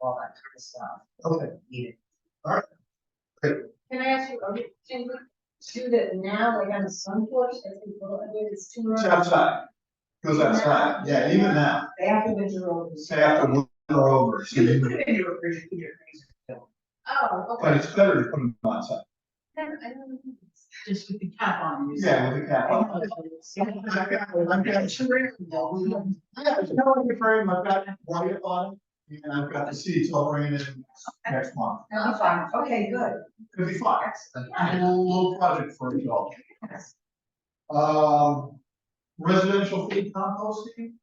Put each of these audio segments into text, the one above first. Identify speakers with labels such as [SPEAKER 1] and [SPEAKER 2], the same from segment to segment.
[SPEAKER 1] all that kind of stuff
[SPEAKER 2] Okay,
[SPEAKER 1] needed.
[SPEAKER 3] Can I ask you, are we, can we do that now, like on the sun porch, as we go, I mean, it's too early?
[SPEAKER 2] outside. Goes outside, yeah, even now,
[SPEAKER 1] They have to measure over. the-
[SPEAKER 2] say after winter over,
[SPEAKER 1] You can put it in your fridge, in your freezer.
[SPEAKER 3] Oh,
[SPEAKER 2] but
[SPEAKER 3] okay.
[SPEAKER 2] it's better to put them outside.
[SPEAKER 3] Then I don't know.
[SPEAKER 1] Just with the cap on. you see.
[SPEAKER 2] Yeah, with the cap on.
[SPEAKER 1] I'm getting sure, no, we don't-
[SPEAKER 2] Yeah, it's telling you frame, I've got white on it, and I've got the seats all in next month.
[SPEAKER 1] No, I'm fine, okay, good.
[SPEAKER 2] It'll be fun,
[SPEAKER 1] Excellent.
[SPEAKER 2] a little, little project for you all.
[SPEAKER 1] Yes.
[SPEAKER 2] Um, residential feed composting,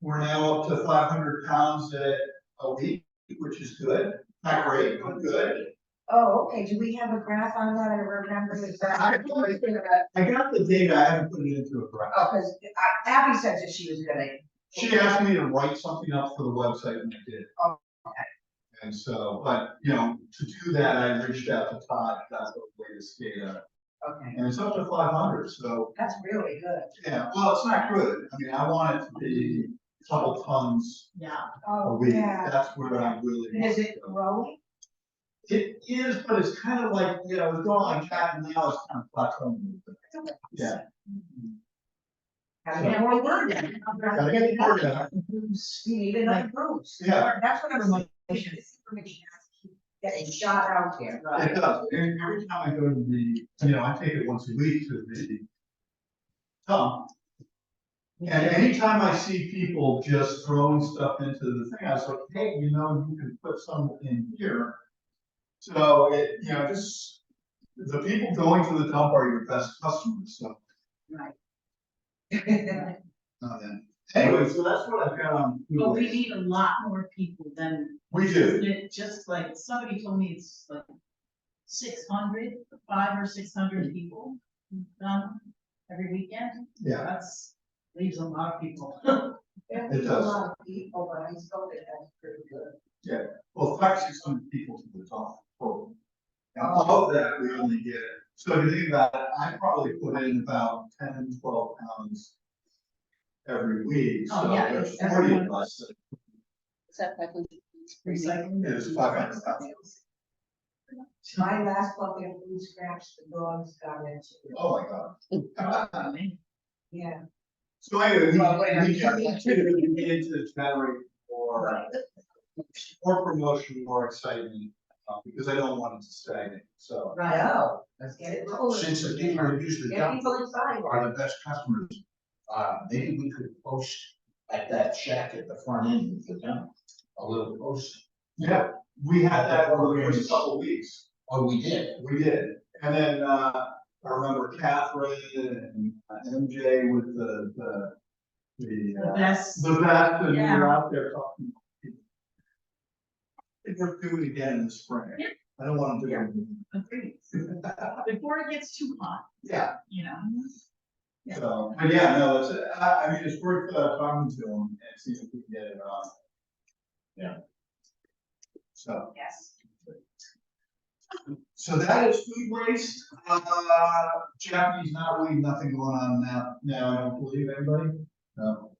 [SPEAKER 2] we're now up to five hundred pounds a, a week, which is good, not great, but good.
[SPEAKER 3] Oh, okay, do we have a graph on that, I remember the graph.
[SPEAKER 2] I don't know. I got the data, I haven't put it into a graph.
[SPEAKER 1] Oh, cause I- Abby said that she was gonna,
[SPEAKER 2] She asked me to write something up for the website and I did.
[SPEAKER 1] Oh,
[SPEAKER 2] And so, but, you know, to do that, I reached out to Todd, that's the latest data,
[SPEAKER 1] okay,
[SPEAKER 2] and it's up to five hundred, so,
[SPEAKER 1] that's really good.
[SPEAKER 2] yeah, well, it's not good. I mean, I want it to be a couple tons
[SPEAKER 1] Yeah.
[SPEAKER 2] a
[SPEAKER 3] Oh,
[SPEAKER 2] week,
[SPEAKER 3] yeah,
[SPEAKER 2] that's where I really. want
[SPEAKER 1] Is it
[SPEAKER 2] to go.
[SPEAKER 1] growing?
[SPEAKER 2] It is, but it's kind of like, you know, it's going like that, and now it's kind of plateauing. Yeah.
[SPEAKER 1] Have more word in
[SPEAKER 2] Gotta get the word out.
[SPEAKER 1] You need another boost.
[SPEAKER 2] Yeah.
[SPEAKER 1] That's what I'm like, this information has to keep getting shot out there.
[SPEAKER 2] It does, and every time I go to the, you know, I take it once a week to the. dump. and anytime I see people just throwing stuff into the thing, I was like, hey, you know, you can put some in here. So it, you know, just, the people going to the dump are your best customers, so.
[SPEAKER 1] Right.
[SPEAKER 2] uh, Anyway, so that's what I've got on. food
[SPEAKER 4] But we
[SPEAKER 2] waste.
[SPEAKER 4] need a lot more people than,
[SPEAKER 2] We do,
[SPEAKER 4] isn't it just like, somebody told me it's like six hundred, five or six hundred people done every weekend?
[SPEAKER 2] yeah,
[SPEAKER 4] That's, leaves a lot of people.
[SPEAKER 1] There's
[SPEAKER 2] It
[SPEAKER 1] a
[SPEAKER 2] does.
[SPEAKER 1] lot of people, but I still think that's pretty good.
[SPEAKER 2] well, five, six hundred people to the dump. total. And all of that, we only get, so if you think about it, I probably put in about 10, 12 pounds every week, so
[SPEAKER 4] Oh, yeah,
[SPEAKER 2] there's
[SPEAKER 4] it's
[SPEAKER 2] forty of
[SPEAKER 4] everyone.
[SPEAKER 2] us. that-
[SPEAKER 4] Recycling.
[SPEAKER 2] It is five hundred thousand.
[SPEAKER 1] My last bucket of food scraps, the dogs got into.
[SPEAKER 2] Oh, my god.
[SPEAKER 1] Yeah.
[SPEAKER 2] So anyway, we,
[SPEAKER 1] Well, wait,
[SPEAKER 2] we get,
[SPEAKER 1] I'm-
[SPEAKER 2] we can get into the chattering or, or promotion or excitement, uh, because I don't want it to stagnate, so.
[SPEAKER 1] I
[SPEAKER 4] Right,
[SPEAKER 1] know. Let's get it rolling.
[SPEAKER 5] Since the people who usually
[SPEAKER 1] Get
[SPEAKER 5] dump
[SPEAKER 1] people inside.
[SPEAKER 5] are the best customers, uh, maybe we could post at that shack at the front end of the dump, a little post.
[SPEAKER 2] Yeah, we had that over the first couple weeks,
[SPEAKER 5] Oh, we did.
[SPEAKER 2] we did, and then, uh, I remember Catherine and uh, MJ with the, the.
[SPEAKER 4] the
[SPEAKER 2] The, uh,
[SPEAKER 4] best,
[SPEAKER 2] the bat, and we were
[SPEAKER 4] Yeah.
[SPEAKER 2] out there talking. about people. I think we're doing it again in the spring,
[SPEAKER 4] Yeah.
[SPEAKER 2] I don't want to do it.
[SPEAKER 4] agreed. Before it gets too hot,
[SPEAKER 2] Yeah,
[SPEAKER 4] you know? Yeah.
[SPEAKER 2] so, but yeah, no, it's, uh, I, I mean, it's worth, uh, talking to them and see if we can get it on. Yeah. So.
[SPEAKER 4] Yes.
[SPEAKER 2] So that is food waste, uh, Japanese not really nothing going on now, now, I don't believe anybody, no.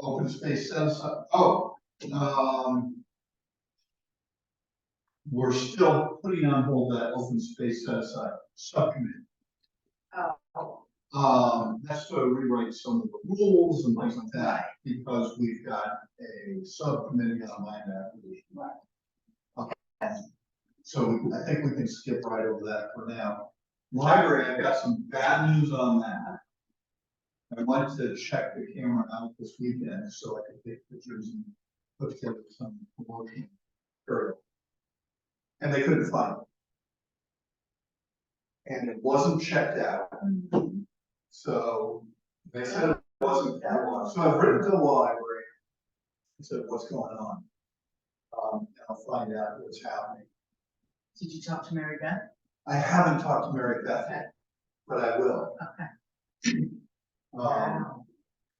[SPEAKER 2] Open space, set aside- oh, um. We're still putting on hold that open space set aside subcommittee.
[SPEAKER 1] Oh.
[SPEAKER 2] Um, that's to rewrite some of the rules and things like that, because we've got a subcommittee on land acquisition. Okay. So I think we can skip right over that for now. Library, I've got some bad news on that. I wanted to check the camera out this weekend, so I could take pictures and put together some promotion material. And they couldn't find it. And it wasn't checked out.
[SPEAKER 4] Mm-hmm.
[SPEAKER 2] So they said it wasn't that long, so I've written to the library. and said, what's going on? Um, and I'll find out what's happening.
[SPEAKER 4] Did you talk to Mary Beth?
[SPEAKER 2] I haven't talked to Mary Beth yet, but I will.
[SPEAKER 4] Okay.
[SPEAKER 2] Um,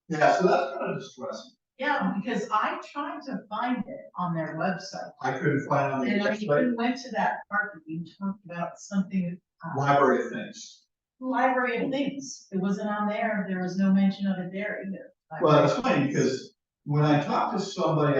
[SPEAKER 2] yeah, so that's kind of distressing.
[SPEAKER 4] Yeah, because I tried to find it on their website.
[SPEAKER 2] I couldn't find on the
[SPEAKER 4] And I
[SPEAKER 2] website,
[SPEAKER 4] even went to that part that you talked about something uh,
[SPEAKER 2] library of things.
[SPEAKER 4] Library of Things, it wasn't on there, there was no mention of it there either.
[SPEAKER 2] Well, it's funny because when I talked to somebody